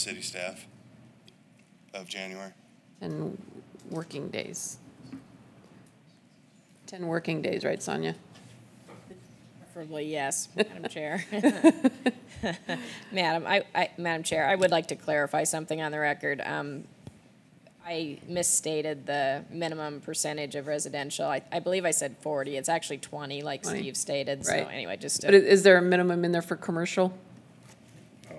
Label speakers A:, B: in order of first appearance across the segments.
A: city staff of January.
B: 10 working days. 10 working days, right, Sonia?
C: Preferably, yes, Madam Chair. Madam, I, I, Madam Chair, I would like to clarify something on the record. Um, I misstated the minimum percentage of residential. I, I believe I said forty. It's actually twenty, like
B: 20,
C: Steve stated. So
B: right.
C: anyway, just
B: But i-
C: to
B: is there a minimum in there for commercial?
D: Oh,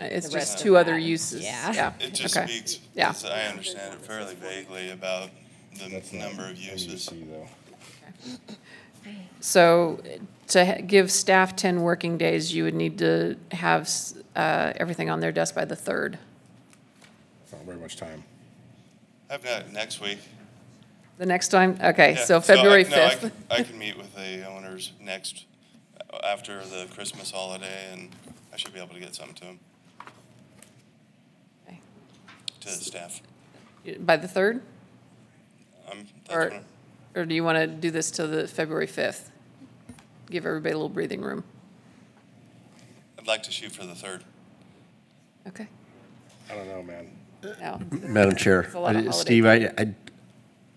B: Uh, It's
C: The
B: just
C: rest
B: two
C: of
B: other
C: that,
B: uses.
C: yeah.
A: It just
B: okay.
A: speaks,
B: Yeah.
A: as I understand it fairly vaguely about the
D: That's not
A: number of uses.
D: NBC, though.
B: So to ha- give staff 10 working days, you would need to have s- uh, everything on their desk by the 3rd.
D: It's not very much time.
A: I've got next week.
B: The next time, okay,
A: Yeah,
B: so February
A: I- no, I
B: 5th.
A: can- I can meet with the owners next, after the Christmas holiday, and I should be able to get something to them,
B: Okay.
A: to the staff.
B: By the 3rd?
A: I'm, that's
B: Or,
A: fine.
B: or do you want to do this till the February 5th? Give everybody a little breathing room.
A: I'd like to shoot for the third.
B: Okay.
D: I don't know, man.
B: No.
E: Madam Chair,
B: It's a lot of
E: I- Steve,
B: holiday
E: I, I,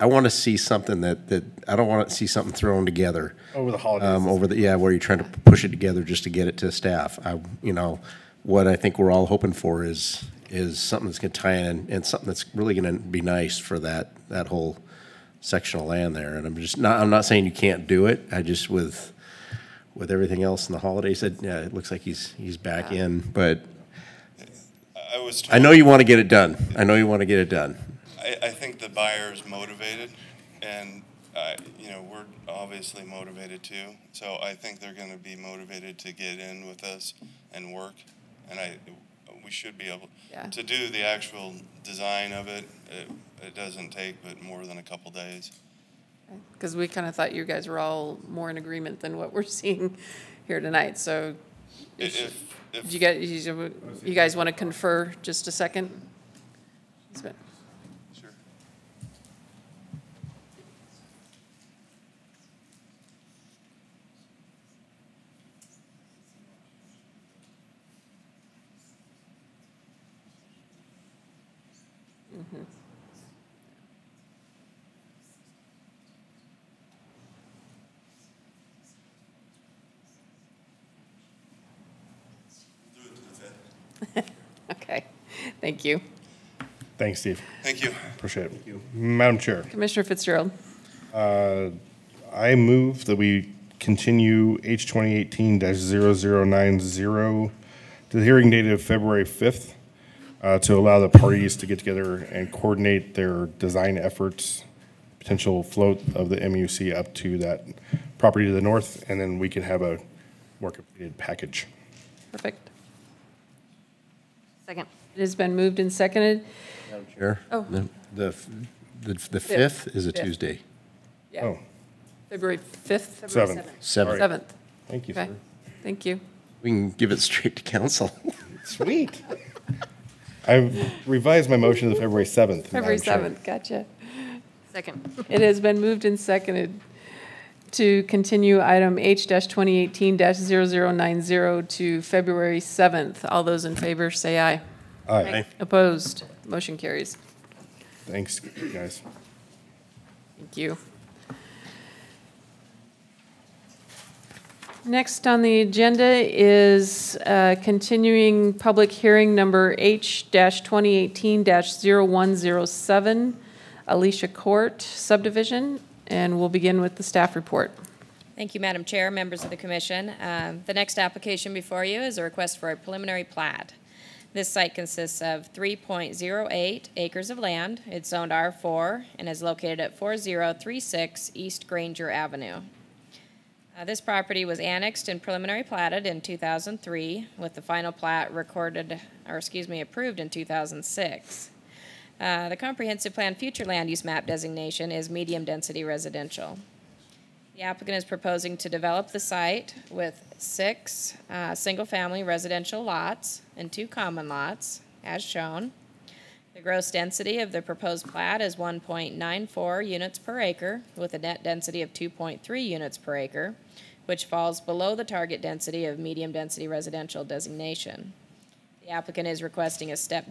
E: I want to see something that, that, I don't want to see something thrown together.
D: Over the holidays.
E: Um, over the, yeah, where you're trying to push it together just to get it to staff. I, you know, what I think we're all hoping for is, is something that's going to tie in and something that's really going to be nice for that, that whole section of land there. And I'm just not, I'm not saying you can't do it. I just with, with everything else in the holidays, it, yeah, it looks like he's, he's back in, but
A: I- I was told.
E: I know you want to get it done. I know you want to get it done.
A: I, I think the buyer is motivated, and, uh, you know, we're obviously motivated too. So I think they're gonna be motivated to get in with us and work, and I, we should be able
B: Yeah.
A: to do the actual design of it. It, it doesn't take but more than a couple days.
B: Because we kind of thought you guys were all more in agreement than what we're seeing here tonight, so
A: I- If,
B: do
A: if,
B: you guys, you you guys want to confer just a second? It's been-
A: sure.
B: Okay, thank you.
D: Thanks, Steve.
A: Thank you.
D: Appreciate it. Madam Chair,
B: Commissioner Fitzgerald,
D: I move that we continue H twenty eighteen 90 to the hearing date of February fifth, uh, to allow the parties to get together and coordinate their design efforts, potential float of the MUC up to that property to the north, and then we could have a more completed package.
B: perfect.
F: Second.
B: It has been moved and seconded.
E: Chair?
B: Oh.
E: The- The, the the 5th is a
B: Fifth.
E: Tuesday.
B: Yeah,
D: Oh,
B: February 5th,
D: seven.
E: 7th.
B: 7th.
D: Thank you,
B: Okay,
D: sir.
B: thank you.
E: We can give it straight to council.
D: Sweet. I've revised my motion to the February 7th.
B: February
D: Madam
B: 7th,
D: Chair.
B: gotcha.
F: Second.
B: It has been moved and seconded to continue item H-2018-0090 to February 7th. All those in favor, say aye.
D: Aye.
B: Opposed? Motion carries.
D: Thanks, guys.
B: Thank you. Next on the agenda is uh, continuing public hearing number H-2018-0107, Alicia Court subdivision, and we'll begin with the staff report.
C: Thank you, Madam Chair, members of the commission. Um, The next application before you is a request for a preliminary plat. This site consists of 3.08 acres of land. It's zoned R4 and is located at 4036 East Granger Avenue. Uh, This property was annexed and preliminary platted in 2003, with the final plat recorded, or excuse me, approved in 2006. Uh, The comprehensive plan future land use map designation is medium-density residential. The applicant is proposing to develop the site with six uh, single-family residential lots and two common lots, as shown. The gross density of the proposed plat is 1.94 units per acre with a net density of 2.3 units per acre, which falls below the target density of medium-density residential designation. The The applicant is requesting a step